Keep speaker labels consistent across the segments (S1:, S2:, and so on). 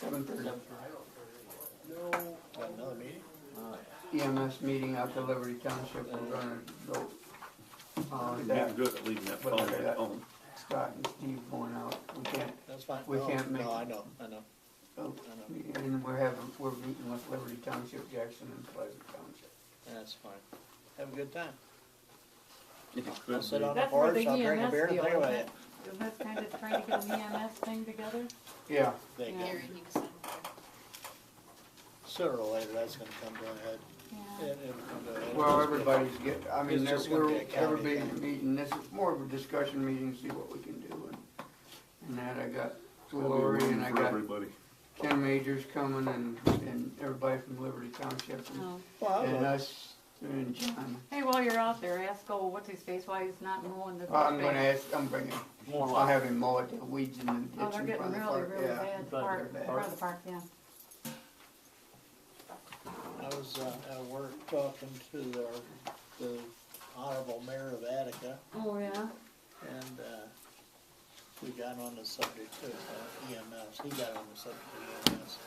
S1: seven thirty.
S2: Got another meeting?
S1: EMS meeting out to Liberty Township, we're gonna go on
S3: You're
S1: that.
S3: good at leaving that phone
S1: Whatever
S3: at
S1: that-
S3: home.
S1: Scott and Steve going out, we can't,
S2: That's fine.
S1: We
S2: No,
S1: can't make
S2: No,
S1: it.
S2: I know, I know.
S1: oh, and we're having, we're meeting with Liberty Township, Jackson and Pleasant Township.
S2: That's fine. Have a good time.
S3: If you
S2: I'll
S3: could
S2: sit
S3: be.
S2: on the
S4: That's where
S2: porch,
S4: the
S2: I'll drink a
S4: EMS
S2: beer and
S4: deal,
S2: play with
S4: isn't
S2: it.
S4: it? Isn't that kind of trying to get an EMS thing together?
S1: Yeah,
S2: They
S4: Yeah.
S2: can. Sooner or later, that's gonna come to a head.
S4: Yeah.
S2: It- it'll come to a head.
S1: well, everybody's get, I mean,
S2: It's
S1: there-
S2: just gonna
S1: we're,
S2: be a county
S1: everybody's
S2: thing.
S1: meeting, this is more of a discussion meeting, see what we can do. and- And that, I got
S3: There'll be
S1: Lori
S3: room
S1: and I
S3: for
S1: got
S3: Everybody.
S1: Ken Majors coming and, and everybody from Liberty Township and-
S4: Oh.
S1: and
S2: Well,
S1: us and John.
S4: Hey, while you're out there, ask old what's his face why he's not mowing the.
S1: I'm gonna
S4: grass.
S1: ask, I'm bringing,
S2: more
S1: I'll
S2: like,
S1: have him mow it, the weeds in the ditch
S4: Oh, they're
S1: in
S4: getting
S1: front of the
S4: really,
S1: park,
S4: really
S1: yeah.
S4: bad.
S1: of
S2: Front
S4: Park,
S1: the
S4: front of the park, yeah.
S2: I was, uh, at work talking to the, the honorable mayor of Attica,
S4: Oh, yeah?
S2: and, uh, we got on the subject of uh, EMS, he got on the subject of EMS.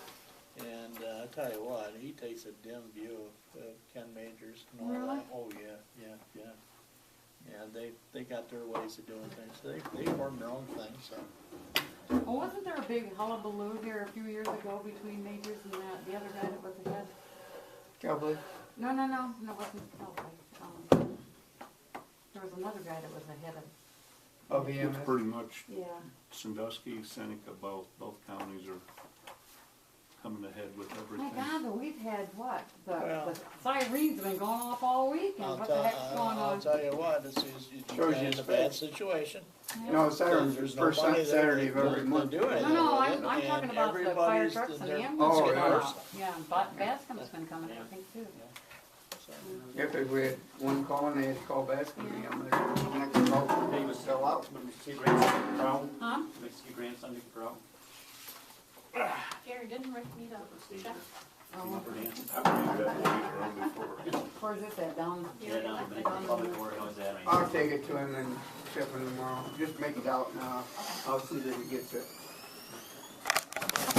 S2: And, uh, I tell you what, he takes a dim view of, of Ken Majors and all
S4: Really?
S2: that, oh, yeah, yeah, yeah. Yeah, they, they got their ways of doing things, they, they form their own thing, so,
S4: Well, wasn't there a big hullabaloo here a few years ago between Majors and that, the other guy that was the head?
S1: Probably.
S4: No, no, no, no, it wasn't Elway. Um, There was another guy that was the head of.
S1: Of EMS.
S3: It's pretty much
S4: Yeah.
S3: Sandusky, Seneca, both, both counties are coming ahead with
S4: My
S3: everything.
S4: God, but we've had what? The,
S2: Well-
S4: the sirene's been going off all week
S2: I'll
S4: and what the
S2: tell, uh,
S4: heck's going
S2: I'll
S4: on?
S2: tell you what, this is, you
S1: Shows
S2: got
S1: you
S2: in
S1: his
S2: a bad
S1: face.
S2: situation.
S4: Yeah.
S1: No, Saturday's
S2: There's
S1: the first
S2: nobody there
S1: Saturday of
S2: to-
S1: every
S2: to
S1: month.
S2: do anything
S4: No, no,
S2: with
S4: I'm,
S2: it,
S4: I'm
S2: and
S4: talking about the fire
S2: everybody's-
S4: trucks and the
S2: they're-
S4: ambulance.
S1: Oh,
S4: going
S1: yeah.
S4: out. Yeah, and Ba- Bascom's been coming, I think, too.
S2: so,
S1: Yeah, 'cause we had one call and they had to call back from EMS, the next call from
S5: He was still out, but Mr. T. Grantson could throw,
S4: Huh?
S5: Mr. Grandson could throw.
S6: Gary didn't Rick meet up with Jeff?
S4: Oh,
S3: I've been that way around before.
S4: where's this at, down?
S5: Yeah, no, but public where he was at, I mean.
S1: I'll take it to him and ship him tomorrow, just make it out now, I'll see that he gets it.